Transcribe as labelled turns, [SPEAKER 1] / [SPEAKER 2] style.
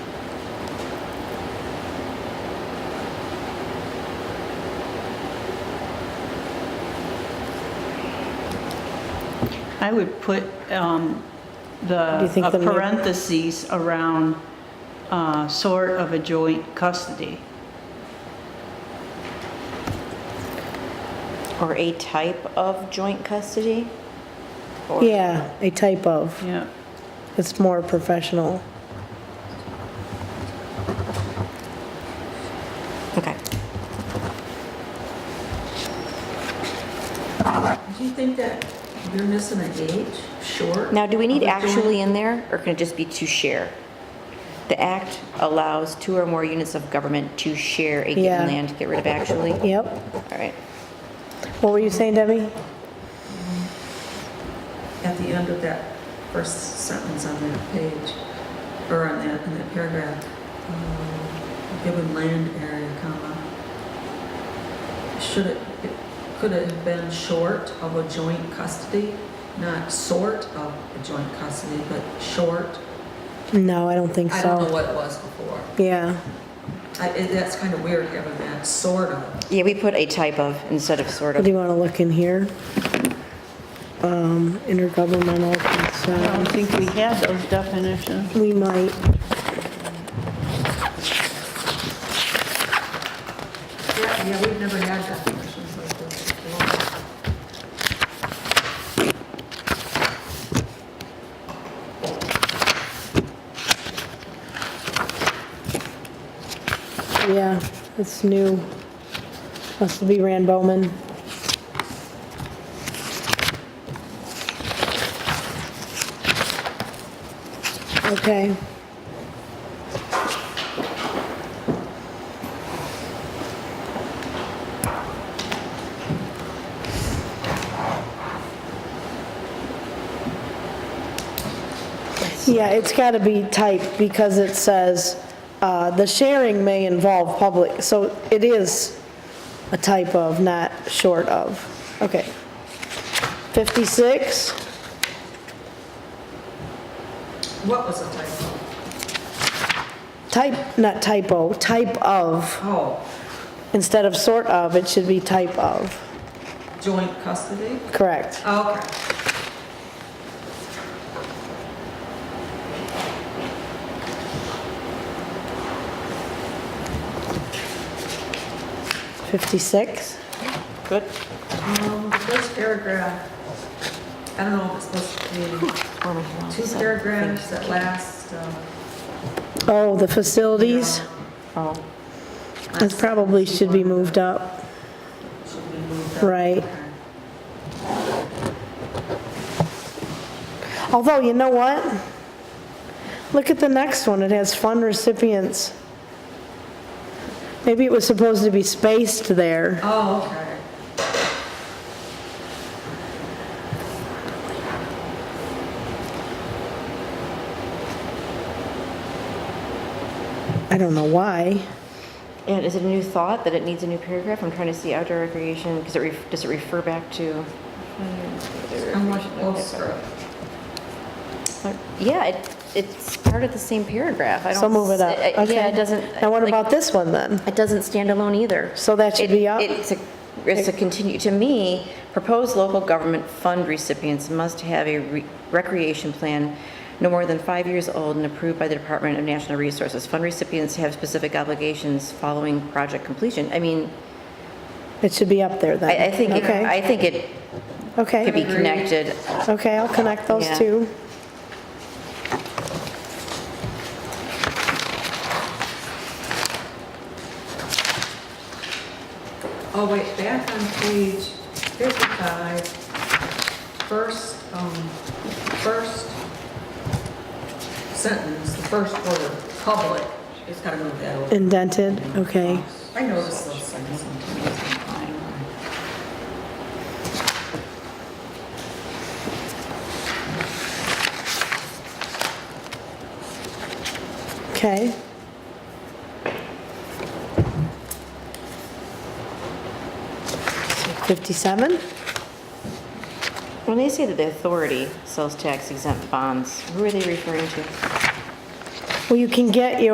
[SPEAKER 1] I would put um,
[SPEAKER 2] Do
[SPEAKER 1] the
[SPEAKER 2] you think
[SPEAKER 1] a
[SPEAKER 2] the ma-
[SPEAKER 1] parentheses around uh, sort of a joint custody.
[SPEAKER 3] Or a type of joint custody? Or-
[SPEAKER 2] Yeah, a type of.
[SPEAKER 1] Yeah.
[SPEAKER 2] It's more professional.
[SPEAKER 3] Okay.
[SPEAKER 4] Do you think that you're missing a gauge, short?
[SPEAKER 3] Now, do we need
[SPEAKER 4] of a joint?
[SPEAKER 3] actually in there, or can it just be to share? The act allows two or more units of government to share a
[SPEAKER 2] Yeah.
[SPEAKER 3] given land, get rid of actually?
[SPEAKER 2] Yep.
[SPEAKER 3] All right.
[SPEAKER 2] What were you saying, Debbie?
[SPEAKER 4] At the end of that first sentence on that page, or on that, in that paragraph, um, given land area, comma, should it, it- could it have been short of a joint custody? Not sort of a joint custody, but short?
[SPEAKER 2] No, I don't think
[SPEAKER 4] I don't know
[SPEAKER 2] so.
[SPEAKER 4] what it was before.
[SPEAKER 2] Yeah,
[SPEAKER 4] I, it- that's kind of weird having that, sort of.
[SPEAKER 3] Yeah, we put a type of instead of sort
[SPEAKER 2] do
[SPEAKER 3] of.
[SPEAKER 2] you want to look in here? Um, intergovernmental
[SPEAKER 1] I don't
[SPEAKER 2] consent,
[SPEAKER 1] think we have those definitions.
[SPEAKER 2] we might,
[SPEAKER 4] Yeah, yeah, we've never had definitions like this before.
[SPEAKER 2] yeah, it's new. Must be Rand Bowman. Okay. Yeah, it's got to be typed because it says, uh, "The sharing may involve public," so it is a type of, not short of. Okay. 56,
[SPEAKER 4] What was the typo?
[SPEAKER 2] type, not typo, type of.
[SPEAKER 4] Oh,
[SPEAKER 2] Instead of sort of, it should be type of.
[SPEAKER 4] joint custody?
[SPEAKER 2] Correct.
[SPEAKER 4] Okay.
[SPEAKER 2] Fifty-six?
[SPEAKER 3] Good.
[SPEAKER 4] Um, the first paragraph, I don't know if it's supposed to be two paragraphs that last, um,
[SPEAKER 2] Oh, the facilities,
[SPEAKER 3] Oh,
[SPEAKER 2] it probably should be moved up.
[SPEAKER 4] should be moved up.
[SPEAKER 2] Right.
[SPEAKER 4] Okay.
[SPEAKER 2] Although, you know what? Look at the next one, it has fund recipients. Maybe it was supposed to be spaced there.
[SPEAKER 4] Oh, okay.
[SPEAKER 2] I don't know why.
[SPEAKER 3] and is it a new thought that it needs a new paragraph? I'm trying to see outdoor recreation because it ref, does it refer back to?
[SPEAKER 4] I'm like, oh, screw.
[SPEAKER 3] Yeah, it, it's part of the same paragraph. I don't.
[SPEAKER 2] So move it up,
[SPEAKER 3] s- uh,
[SPEAKER 2] okay?
[SPEAKER 3] Yeah, it doesn't.
[SPEAKER 2] Now what
[SPEAKER 3] like,
[SPEAKER 2] about this one then?
[SPEAKER 3] It doesn't stand alone either.
[SPEAKER 2] So that should
[SPEAKER 3] It-
[SPEAKER 2] be up?
[SPEAKER 3] It's a, it's a continue, to me, proposed local government fund recipients must have a re- recreation plan no more than five years old and approved by the Department of National Resources. Fund recipients have specific obligations following project completion. I mean,
[SPEAKER 2] It should be up there then.
[SPEAKER 3] I, I think, it-
[SPEAKER 2] Okay,
[SPEAKER 3] I think it could be
[SPEAKER 2] okay,
[SPEAKER 3] connected.
[SPEAKER 2] okay, I'll connect those
[SPEAKER 3] Yeah.
[SPEAKER 2] two.
[SPEAKER 4] Oh, wait, back on page 55, first, um, first sentence, the first word, public, it's gotta move that over.
[SPEAKER 2] Indented, okay.
[SPEAKER 4] I notice those things sometimes.
[SPEAKER 2] Okay. Fifty-seven?
[SPEAKER 3] When they say that the authority sells tax exempt bonds, who are they referring to?
[SPEAKER 2] Well, you can get your